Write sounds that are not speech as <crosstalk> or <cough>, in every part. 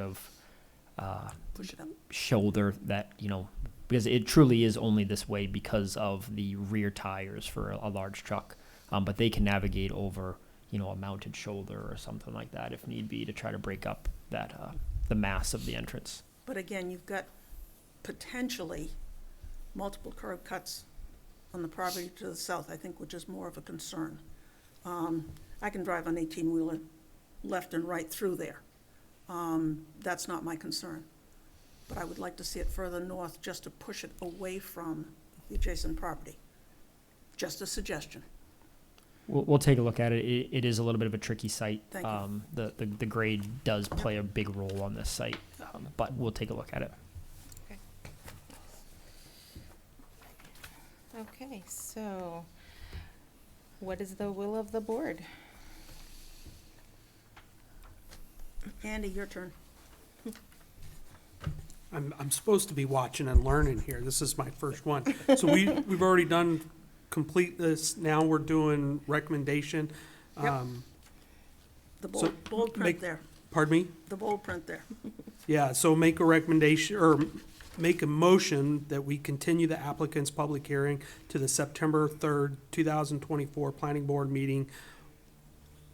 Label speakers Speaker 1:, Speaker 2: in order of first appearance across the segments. Speaker 1: of uh, shoulder that you know because it truly is only this way because of the rear tires for a, a large truck um, but they can navigate over you know a mounted shoulder or something like that if need be to try to break up that uh, the mass of the entrance
Speaker 2: But again, you've got potentially multiple curb cuts on the property to the south, I think, which is more of a concern. Um, I can drive an eighteen-wheeler left and right through there. Um, That's not my concern. But I would like to see it further north just to push it away from the adjacent property. Just a suggestion.
Speaker 1: We'll, we'll take a look at it. it. It is a little bit of a tricky site.
Speaker 2: Thank you.
Speaker 1: Um, the, the, the grade does play a big role on this site, um, but we'll take a look at it.
Speaker 3: Okay, so what is the will of the board?
Speaker 2: Andy, your turn.
Speaker 4: I'm, I'm supposed to be watching and learning here. This is my first one. So we, we've already done complete this. Now we're doing recommendation.
Speaker 2: Yep.
Speaker 4: Um,
Speaker 2: The
Speaker 4: So,
Speaker 2: bold, bold print
Speaker 4: make-
Speaker 2: there,
Speaker 4: Pardon me?
Speaker 2: the bold print there.
Speaker 4: Yeah, so make a recommendation, or make a motion that we continue the applicant's public hearing to the September third, two thousand twenty-four planning board meeting.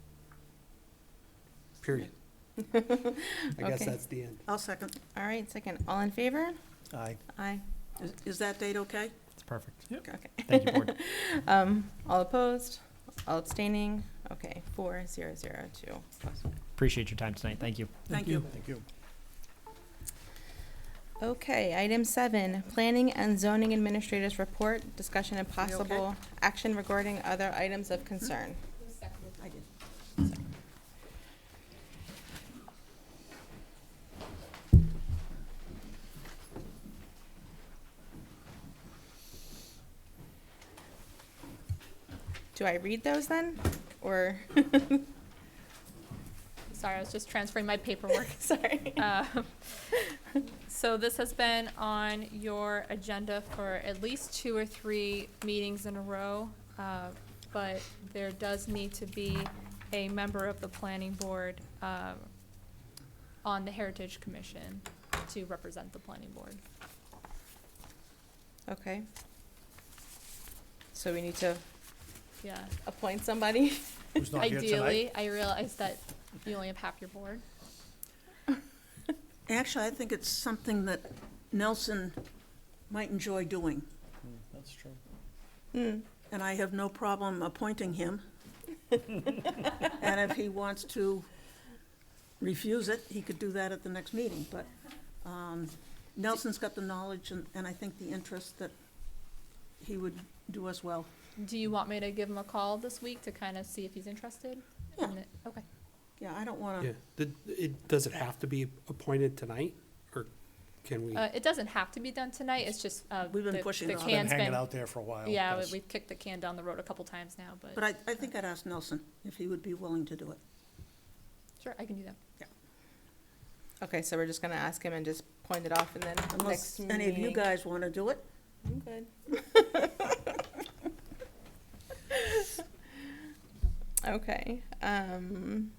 Speaker 2: <laughs>
Speaker 4: Period. I guess
Speaker 3: Okay.
Speaker 4: that's the end.
Speaker 2: I'll second.
Speaker 3: All right, second, all in favor?
Speaker 5: Aye.
Speaker 3: Aye.
Speaker 2: Is- Is that date okay?
Speaker 1: It's perfect.
Speaker 3: Okay.
Speaker 1: Thank you,
Speaker 2: <laughs>
Speaker 1: board.
Speaker 3: Um, all opposed, all abstaining, okay, four, zero, zero, two.
Speaker 1: Appreciate your time tonight. Thank you.
Speaker 2: Thank you.
Speaker 5: Thank you.
Speaker 3: Okay, item seven, planning and zoning administrators report, discussion and
Speaker 2: okay?
Speaker 3: possible action regarding other items of concern.
Speaker 2: I did.
Speaker 3: Do I read those then, or,
Speaker 6: Sorry, I was just transferring my paperwork.
Speaker 3: sorry?
Speaker 6: Um, So this has been on your agenda for at least two or three meetings in a row, uh, but there does need to be a member of the planning board uh, on the Heritage Commission to represent the planning board.
Speaker 3: Okay. So we need to
Speaker 6: Yeah.
Speaker 3: appoint somebody? <laughs>
Speaker 5: Who's not here tonight?
Speaker 6: Ideally, I realize that you only have half your board.
Speaker 2: Actually, I think it's something that Nelson might enjoy doing,
Speaker 5: That's true.
Speaker 3: Hmm,
Speaker 2: and I have no problem appointing
Speaker 3: <laughs>
Speaker 2: him. And if he wants to refuse it, he could do that at the next meeting, but um, Nelson's got the knowledge and, and I think the interest that he would do us well.
Speaker 6: Do you want me to give him a call this week to kind of see if he's interested?
Speaker 2: Yeah.
Speaker 6: And it- Okay.
Speaker 2: Yeah, I don't want
Speaker 4: Yeah,
Speaker 2: to,
Speaker 4: Did- it, does it have to be appointed tonight, or can we?
Speaker 6: Uh, it doesn't have to be done tonight, it's just, uh,
Speaker 2: We've been
Speaker 6: the-
Speaker 2: pushing
Speaker 6: the
Speaker 2: it off.
Speaker 5: It's been
Speaker 6: can's
Speaker 5: hanging out there for a while.
Speaker 6: Yeah, we-
Speaker 5: 'cause-
Speaker 6: we've kicked the can down the road a couple times now,
Speaker 2: but
Speaker 6: but,
Speaker 2: I, I think I'd ask Nelson if he would be willing to do it.
Speaker 6: sure, I can do that.
Speaker 3: Okay, so we're just gonna ask him and just point it off and then next
Speaker 2: Unless
Speaker 3: meeting.
Speaker 2: any of you guys want to do it,
Speaker 3: I'm good. Okay, um,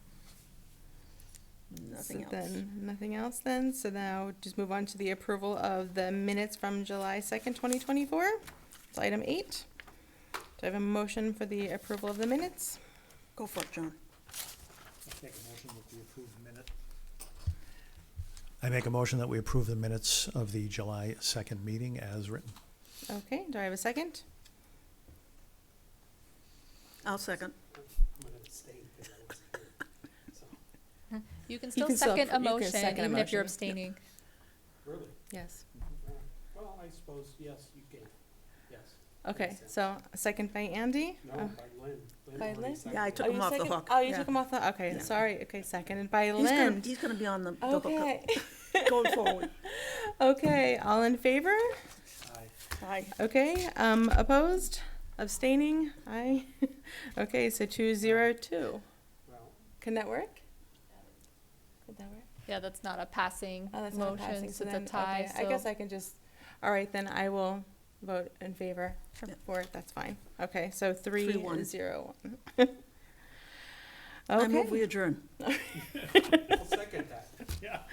Speaker 3: so
Speaker 2: nothing else.
Speaker 3: then, nothing else then, so now just move on to the approval of the minutes from July second, twenty twenty-four. It's item eight. Do I have a motion for the approval of the minutes?
Speaker 2: Go for it, John.
Speaker 5: Make a motion that we approve the minute. I make a motion that we approve the minutes of the July 2nd meeting as written.
Speaker 3: Okay, do I have a second?
Speaker 2: I'll second.
Speaker 4: I'm gonna abstain 'cause I wasn't here.
Speaker 6: You can still
Speaker 3: can still
Speaker 6: second a
Speaker 3: appro- you can
Speaker 6: motion,
Speaker 3: second a
Speaker 6: even if you're
Speaker 3: motion.
Speaker 6: abstaining.
Speaker 4: <laughs> Really?
Speaker 3: Yes.
Speaker 4: Well, I suppose, yes, you can, yes.
Speaker 3: Okay,
Speaker 4: Makes sense.
Speaker 3: so a second by Andy?
Speaker 4: No,
Speaker 3: Uh,
Speaker 4: by Lynn. Lynn
Speaker 3: By
Speaker 4: already
Speaker 3: Lynn?
Speaker 4: seconded
Speaker 2: Yeah, I
Speaker 4: it.
Speaker 2: took
Speaker 3: oh,
Speaker 2: him
Speaker 3: you
Speaker 2: off the
Speaker 3: second-
Speaker 2: hook.
Speaker 3: Oh, you
Speaker 2: Yeah.
Speaker 3: took him off the, okay,
Speaker 2: Yeah.
Speaker 3: sorry, okay, seconded by
Speaker 2: He's gonna-
Speaker 3: Lynn.
Speaker 2: He's gonna be on the, the hookup
Speaker 3: Okay, <laughs>
Speaker 2: going forward.
Speaker 3: okay, all in favor?
Speaker 4: Aye.
Speaker 2: Aye.
Speaker 3: Okay, um, opposed, abstaining, aye. <laughs> Okay, so two zero two.
Speaker 4: Well,
Speaker 3: Can that work? Could that work?
Speaker 6: Yeah, that's not a passing
Speaker 3: Oh, that's not
Speaker 6: motion,
Speaker 3: passing, so
Speaker 6: so it's a
Speaker 3: then,
Speaker 6: tie,
Speaker 3: okay, I guess
Speaker 6: so
Speaker 3: I can just, all right, then I will vote in favor
Speaker 2: Sure.
Speaker 3: for it, that's fine. Okay, so three
Speaker 2: one.
Speaker 3: zero one. <laughs>
Speaker 2: I move
Speaker 3: Okay,
Speaker 2: we adjourn.
Speaker 4: I'll second that.